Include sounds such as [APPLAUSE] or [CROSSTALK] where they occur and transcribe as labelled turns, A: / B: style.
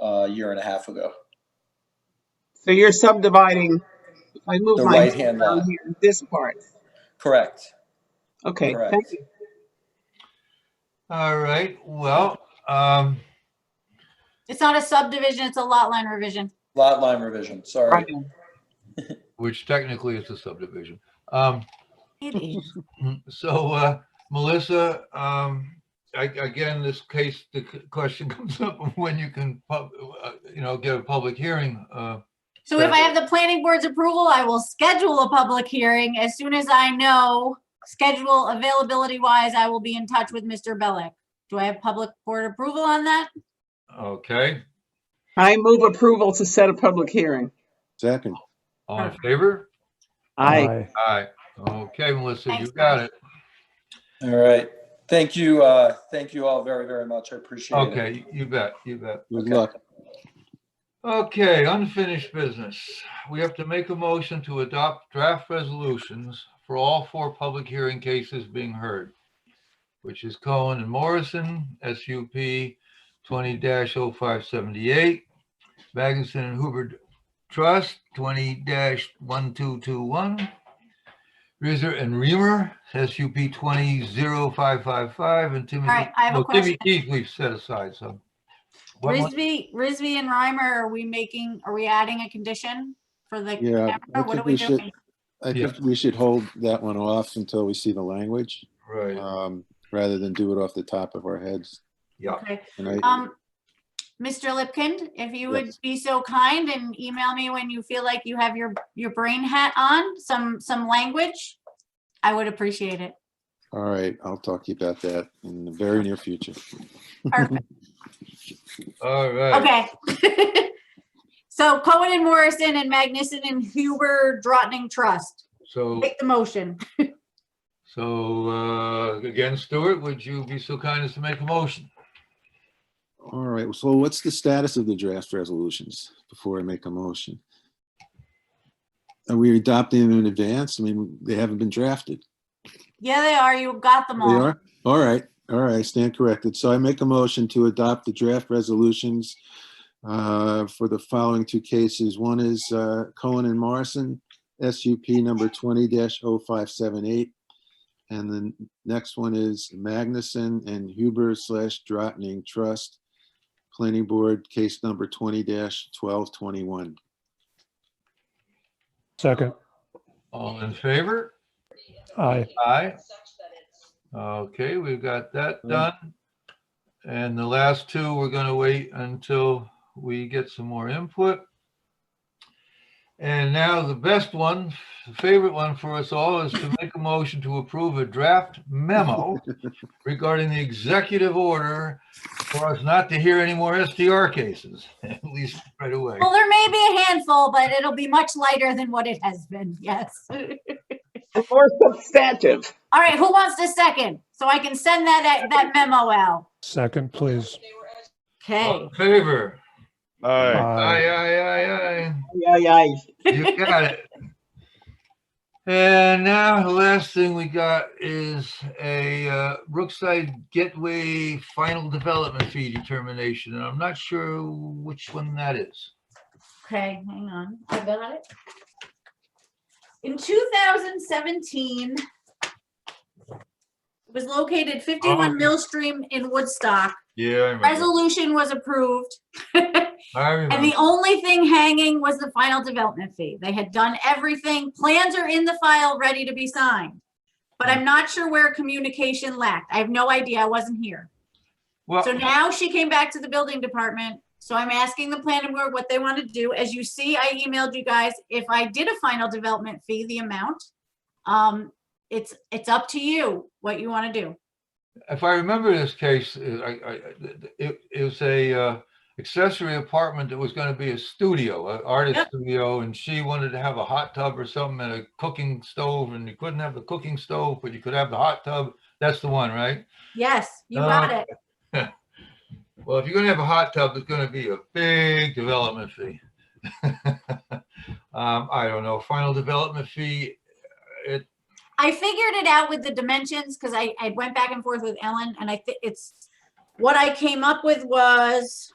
A: a year and a half ago.
B: So you're subdividing, if I move
A: The
B: my,
A: right-hand
B: down
A: lot.
B: here, this part.
A: Correct.
B: Okay,
A: Correct.
B: thank you.
C: All right, well, um,
D: It's not a subdivision, it's a lot line revision.
A: Lot line revision, sorry.
B: Right.
C: which technically is a subdivision. Um,
D: It is.
C: [LAUGHS] so, uh, Melissa, um, I, again, this case, the c- question [LAUGHS] comes up of when you can, pub, uh, you know, get a public hearing, uh,
D: So if I have the planning board's approval, I will schedule a public hearing. As soon as I know, schedule availability wise, I will be in touch with Mr. Bellick. Do I have public board approval on that?
C: okay?
B: I move approval to set a public hearing.
E: Second.
C: All in favor?
B: Aye.
C: Aye. Okay, Melissa, you
D: Thanks,
C: got
D: guys.
C: it.
A: All right. Thank you, uh, thank you all very, very much. I appreciate it.
C: Okay, you bet, you bet.
E: Good
A: Okay.
E: luck.
C: Okay, unfinished business. We have to make a motion to adopt draft resolutions for all four public hearing cases being heard, which is Cohen and Morrison, SUP 20-0578, Magnuson and Hubbard Trust 20-1221, Rizzer and Reamer, SUP 20-0555, and Timothy.
D: right, I have a
C: well, Timmy
D: question.
C: Keith we've set aside, so. One more-
D: Risby, Risby and Reimer, are we making, are we adding a condition for the?
E: Yeah, I
D: camera? What
E: think
D: are we
E: we should-
D: doing?
E: I
C: Yeah.
E: think we should hold that one off until we see the language,
C: Right.
E: um, rather than do it off the top of our heads.
C: Yeah.
D: Okay.
E: And I,
D: Um, Mr. Lipkind, if you would
E: Yes.
D: be so kind and email me when you feel like you have your, your brain hat on, some, some language, I would appreciate it.
E: all right, I'll talk to you about that in the very near future.
D: Perfect,
C: All right.
D: okay. [LAUGHS] So Cohen and Morrison and Magnuson and Huber Drottning Trust,
C: So,
D: make the motion.
C: so, uh, again, Stuart, would you be so kind as to make a motion?
E: All right, so what's the status of the draft resolutions before I make a motion? Are we adopting them in advance? I mean, they haven't been drafted.
D: Yeah, they are, you got them
E: They
D: all.
E: are? All right, all right, stand corrected. So I make a motion to adopt the draft resolutions uh, for the following two cases. One is uh, Cohen and Morrison, SUP number 20-0578. And the next one is Magnuson and Huber slash Drottning Trust, Planning Board, case number 20-1221.
F: Second,
C: All in favor?
F: aye.
C: Aye. Okay, we've got that done. And the last two, we're gonna wait until we get some more input. And now the best one, the favorite one for us all is to make a motion to approve a draft memo regarding the executive order for us not to hear any more SDR cases, [LAUGHS] at least right away.
D: Well, there may be a handful, but it'll be much lighter than what it has been, [LAUGHS] yes.
B: And More substantive.
D: All right, who wants to second? So I can send that, that- that memo out.
F: Second, please.
C: All
D: Okay.
C: in favor?
G: Aye.
C: Aye,
F: Aye.
C: aye, aye,
B: Aye,
C: aye.
B: aye, aye.
C: You got it. And now the last thing we got is a uh, Brookside Gateway final development fee determination. And I'm not sure which one that is.
D: Okay, hang on, I got it. In two thousand seventeen, it was located
C: Oh.
D: fifty-one Mill Stream in Woodstock.
C: Yeah.
D: Resolution
C: [LAUGHS]
D: was approved. And
C: I
D: the
C: remember.
D: only thing hanging was the final development fee. They had done everything. Plans are in the file, ready to be signed. But I'm not sure where communication lacked. I have no idea. I wasn't here.
C: Well,
D: So now she came back to the building department. So I'm asking the planning board what they want to do. As you see, I emailed you guys if I did a final development fee, the amount. Um, it's, it's up to you what you want to do.
C: if I remember this case, uh, I- I- it it was a uh, accessory apartment that was going to be a studio, an artist
D: Yep.
C: studio. And she wanted to have a hot tub or something and a cooking stove. And you couldn't have the cooking stove, but you could have the hot tub. That's the one, right?
D: Yes, you got
C: Uh,
D: it.
C: Well, if you're gonna have a hot tub, there's gonna be a big development fee. [LAUGHS] Um, I don't know, final development fee, it,
D: I figured it out with the dimensions because I, I went back and forth with Ellen and I think it's, what I came up with was